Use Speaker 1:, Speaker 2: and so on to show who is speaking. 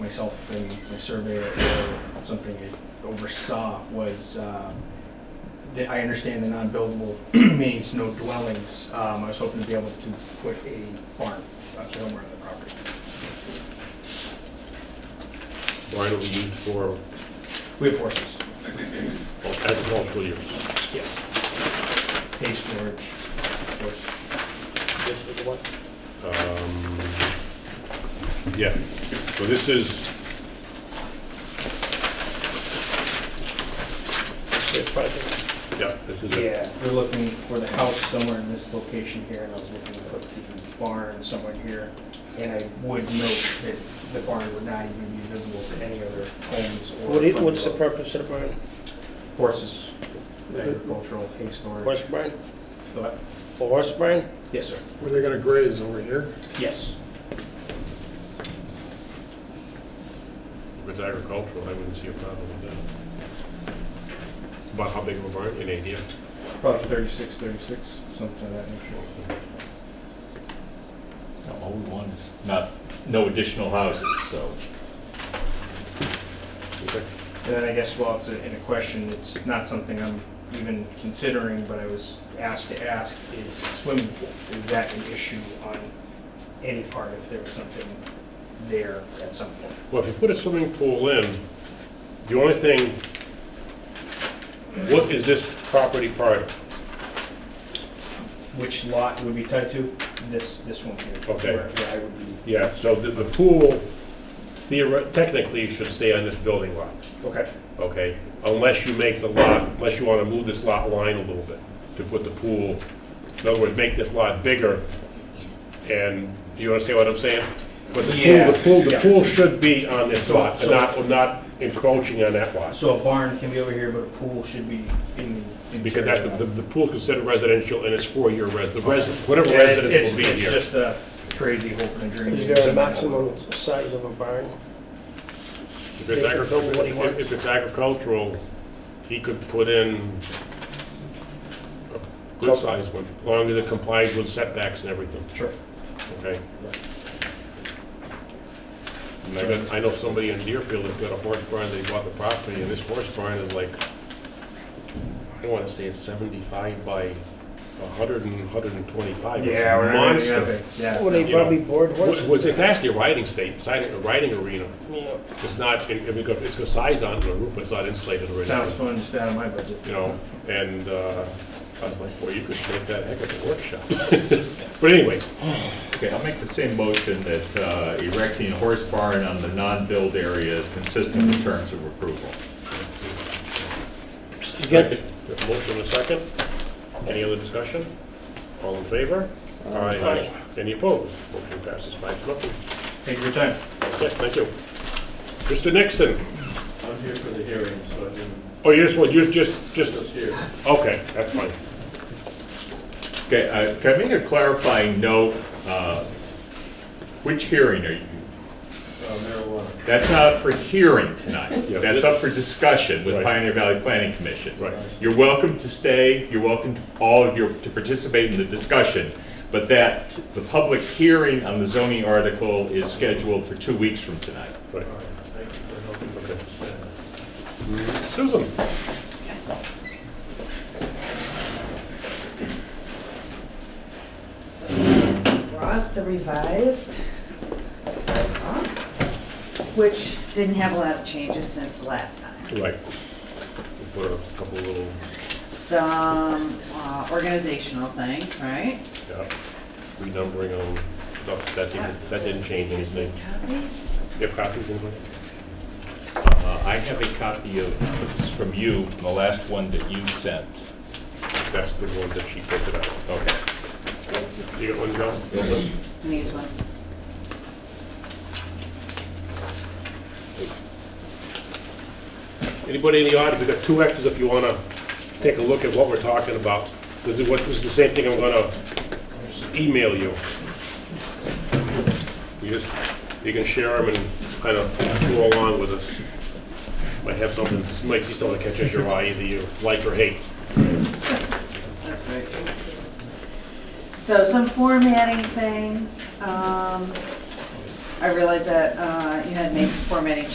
Speaker 1: myself and the surveyor or something oversaw was, uh, that I understand the non-buildable means no dwellings. Um, I was hoping to be able to put a barn up somewhere on the property.
Speaker 2: Barn will be used for
Speaker 1: We have horses,
Speaker 2: agricultural use.
Speaker 1: yes. Hay storage, horses.
Speaker 2: Um, Yeah, so this is, yeah, this is it.
Speaker 1: Yeah, we're looking for the house somewhere in this location here, and I was looking to put the barn somewhere here. And I would note that the barn would not even be visible to any other homes or.
Speaker 3: What is,
Speaker 1: front
Speaker 3: what's the
Speaker 1: yard.
Speaker 3: purpose of the barn?
Speaker 1: Horses, agricultural, hay storage.
Speaker 3: Horse barn?
Speaker 1: But-
Speaker 3: A horse barn?
Speaker 1: Yes, sir.
Speaker 4: Where they gonna graze, over here?
Speaker 1: Yes.
Speaker 2: If it's agricultural, I wouldn't see a problem with that. About how big of a barn, any idea?
Speaker 1: Probably 36, 36, something of that nature.
Speaker 5: No, All we want is not, no additional houses, so.
Speaker 2: Okay.
Speaker 1: And then I guess while it's a- in a question, it's not something I'm even considering, but I was asked to ask, is swimming pool, is that an issue on any part if there was something there at some point?
Speaker 2: Well, if you put a swimming pool in, the only thing, what is this property part of?
Speaker 1: Which lot would be tied to? This, this one here.
Speaker 2: Okay.
Speaker 1: Where where I would be,
Speaker 2: Yeah, so the, the pool theoretically, technically should stay on this building lot.
Speaker 1: okay,
Speaker 2: okay? Unless you make the lot, unless you want to move this lot line a little bit to put the pool, in other words, make this lot bigger. And, do you understand what I'm saying? But the
Speaker 1: Yeah,
Speaker 2: pool, the pool, the
Speaker 1: yeah.
Speaker 2: pool should be on this
Speaker 1: So-
Speaker 2: lot, and
Speaker 1: so-
Speaker 2: not, not encroaching on that lot.
Speaker 1: so a barn can be over here, but a pool should be in the.
Speaker 2: Because that's, the, the pool is considered residential and it's four-year res, the res,
Speaker 1: Yeah,
Speaker 2: whatever
Speaker 1: it's-
Speaker 2: residence
Speaker 1: it's-
Speaker 2: will be
Speaker 1: It's
Speaker 2: here.
Speaker 1: just a crazy hope and a dream.
Speaker 3: Is there a maximum size of a barn?
Speaker 2: If it's agricultural, if- if it's agricultural, he could put in a good-sized one, as long as it complies with setbacks and everything.
Speaker 1: Sure.
Speaker 2: Okay. And I got, I know somebody in Deerfield that's got a horse barn, they bought the property, and this horse barn is like, I wanna say it's seventy-five by a hundred and, hundred and twenty-five, it's
Speaker 1: Yeah,
Speaker 2: a
Speaker 1: we're not gonna have
Speaker 2: monster.
Speaker 1: it. Yeah.
Speaker 3: Well, they
Speaker 2: you know.
Speaker 3: probably board
Speaker 2: Wh-
Speaker 3: horses.
Speaker 2: Which, it's actually a riding state, siding, a riding arena,
Speaker 3: Yeah.
Speaker 2: it's not, and and we got, it's got sides on the roof, but it's not insulated or
Speaker 1: Sounds
Speaker 2: anything.
Speaker 1: fun, just out of my budget.
Speaker 2: You know, and, uh, I was like, boy, you could make that a heck of a workshop. But anyways,
Speaker 5: Okay, I'll make the same motion that uh, erecting a horse barn on the non-build area is consistent with terms of approval.
Speaker 3: You got,
Speaker 2: Got a Motion in a second. Any other discussion? All in favor? Aye. Any opposed? Motion passes five to nothing.
Speaker 1: Take your time.
Speaker 2: That's it, thank you. Mr. Nixon,
Speaker 6: I'm here for the hearing, so I didn't,
Speaker 2: oh, you just, want- you just, just,
Speaker 6: just uh, here.
Speaker 2: okay, that's fine.
Speaker 5: Okay, uh, can I make a clarifying note? uh, Which hearing are you,
Speaker 6: Uh, marijuana.
Speaker 5: that's not up for hearing tonight.
Speaker 2: Yeah.
Speaker 5: That's up for discussion with
Speaker 2: Right.
Speaker 5: Pioneer Valley Planning Commission.
Speaker 2: Right.
Speaker 5: You're welcome to stay, you're welcome, to- all of you, to participate in the discussion, but that, the public hearing on the zoning article is scheduled for two weeks from tonight.
Speaker 2: Right.
Speaker 6: All right, thank you for helping me understand that.
Speaker 2: Susan?
Speaker 7: brought the revised bylaw, which didn't have a lot of changes since last time.
Speaker 2: Right. We Put a couple little,
Speaker 7: Some uh, organizational things, right?
Speaker 2: yeah, renumbering on stuff, that didn't, that didn't change anything.
Speaker 7: Copies?
Speaker 2: You have copies in there?
Speaker 5: Uh, I have a copy of, it's from you, from the last one that you sent.
Speaker 2: That's the one that she printed out.
Speaker 5: Okay.
Speaker 2: You got one, John?
Speaker 7: Needs one.
Speaker 2: Anybody in the audience, we've got two extras if you want to take a look at what we're talking about. This is what, this is the same thing I'm going to email you. You just, you can share them and kind of go along with us. Might have something, might see something that catches your eye, either you like or hate.
Speaker 7: That's very true. So some formatting things, um, I realized that uh, you had made some formatting